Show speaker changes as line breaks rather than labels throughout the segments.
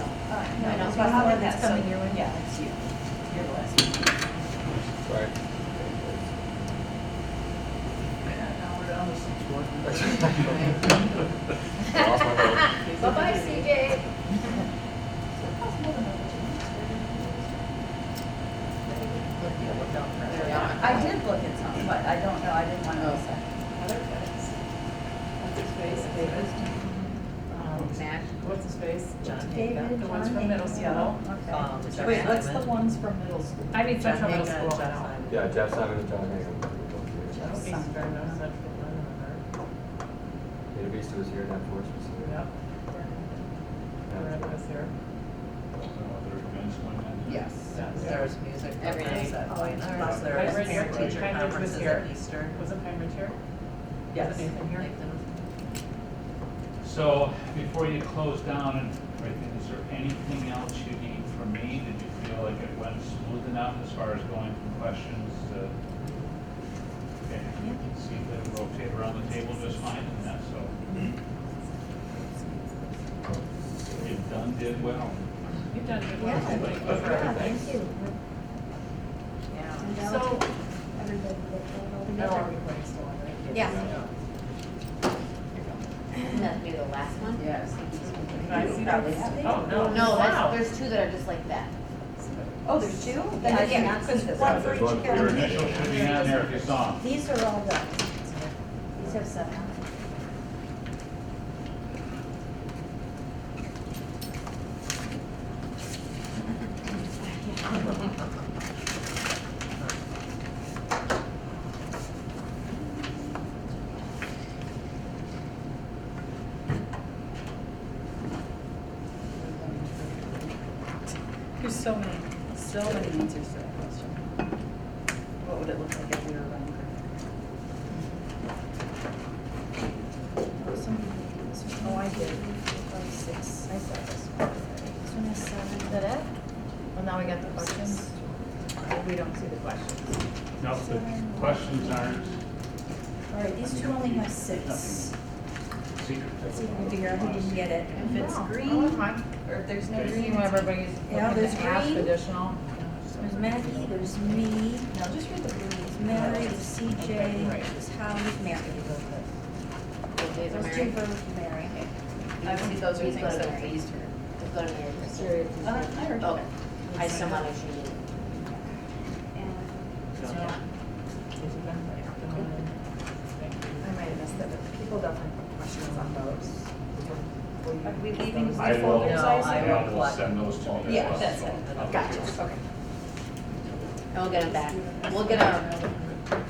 No,
No,
no,
it's
it's
not
not
the
one
one that's
that's
coming
so-
your way.
Yeah, it's you. You're the last one.
Right. Lost my vote.
Bye-bye, CJ.
I did look at some, but I don't know, I didn't want to miss it.
Other cuts. What's his face?
Um, Matt.
What's his face?
John.
The ones from middle school.
Okay.
Um, Jeff
Wait, what's the
Simon.
ones from middle school?
I mean,
Jeff
Central Middle
Hagan,
School.
Jeff Simon.
Yeah, Jeff Simon and John Hagan.
That would be Central, no Central, none
Data Beast was here, that force was
of
here.
them are. Yep. Rep was here.
Yes.
There was music.
Every day.
programs at White
Oh,
House.
alright.
There
Pine
was
Ridge here,
parent-teacher
Pine Ridge was
conferences
here.
at Easter.
Wasn't Pine Ridge here?
Yes.
Was Nathan here?
So before you close down and everything, is there anything else you need from me? Did you feel like it went smooth enough as far as going from questions to? Okay, you can see the rotate around the table just fine and that, so. You've done, did well.
You've done good work.
Yeah.
Thank you for
Yeah,
everything.
thank you.
Yeah.
And that
So-
was everybody that came over
Now
there.
everybody's still on, right?
Yeah.
Wouldn't that be the last one?
Yes.
Can I see that?
Probably have it.
Oh, no.
No,
Wow.
that's, there's two that are just like that.
Oh, there's two? Then
Yeah,
I did
yeah.
not see this.
One
Yeah,
for
there's
each
one for
Your
county.
each.
initial should be on there if you saw 'em.
These are all done. These have seven.
There's so many, so many answers to that question. What would it look like if we were running?
Oh, somebody did this one. Oh, I did. Five, six. I saw this one. This one has seven. Is that it?
Well, now we got the questions. We don't see the questions.
No, the questions aren't
All right, these two only have six.
secret.
Let's see if we can figure out who didn't get it.
If it's
No.
green,
Oh,
or if there's no
Okay.
green,
You know, everybody's
Yeah,
looking
there's
to ask
green.
additional.
There's Maggie, there's me,
no, just read the green.
there's Mary, there's CJ, there's Howie, Mary.
Those days are
Those two
married.
votes for Mary.
I see those are
Please
things
go to
that
Mary.
pleased her.
Just go to Mary.
Uh, I heard
Okay.
that.
I just don't want to cheat it.
I might have missed it, but people definitely put questions on those.
uh,
Are we leaving the
I will,
folders? I see?
I will send those to you. as
Yeah,
well,
that's
so
it.
I'll-
Gotcha, okay.
And we'll get them back. We'll get um,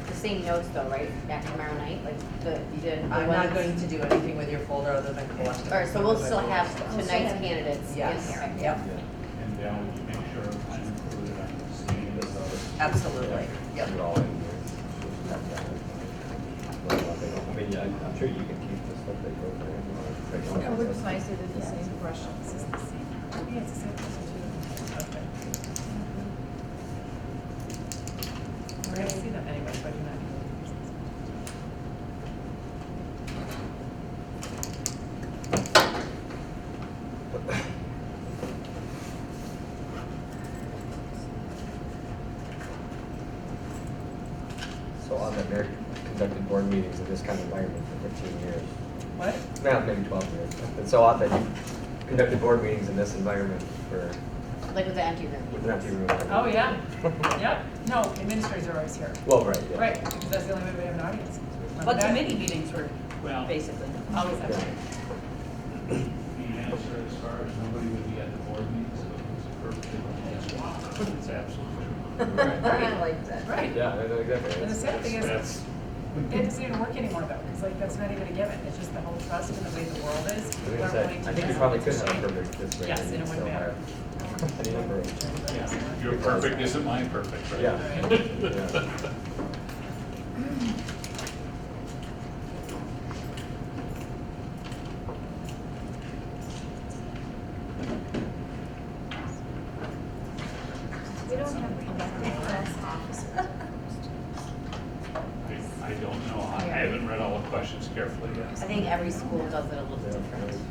the same notes though, right? Back tomorrow night, like the, the the
I'm not going
ones.
to do anything with your folder other than collect them.
All right, so we'll still have
still
tonight's
have-
candidates in
Yes.
here.
Yep.
Yeah.
And then we can make sure I'm included on the same as those.
Absolutely, yep.
You're all in here. I mean, yeah, I'm sure you can keep the stuff that goes there. if you want.
It would be nice if it's the same questions.
Yeah, it's the same person too. Okay. We're gonna see them anyway, so I do not need to.
So on the Mayor conducted board meetings in this kind of environment for fifteen years,
What?
now maybe twelve years. And so often you conducted board meetings in this environment for,
Like with the empty room.
with an empty room.
Oh, yeah. Yep. No, administrators are always here.
Well, right, yeah.
Right, because that's the only way we have an audience.
But committee meetings were
Well, the
basically.
Always have.
Yeah.
answer as far as nobody would be at the board meeting, so it's perfectly, yes, it's absolutely true.
I liked it.
Right.
Yeah, I know exactly.
And the sad thing is,
That's-
it doesn't even work anymore though, because like, that's not even a given. It's just the whole trust in the way the world is.
I was
We're
gonna say,
willing to
I think you
just-
probably could have perfect this way.
Yes, and it wouldn't matter.
Any number of.
Yeah, Your perfect isn't my perfect, right?
Yeah.
We don't have a class officer.
I I don't know, I I haven't read all the questions carefully
I
yet.
think every school does it a little different.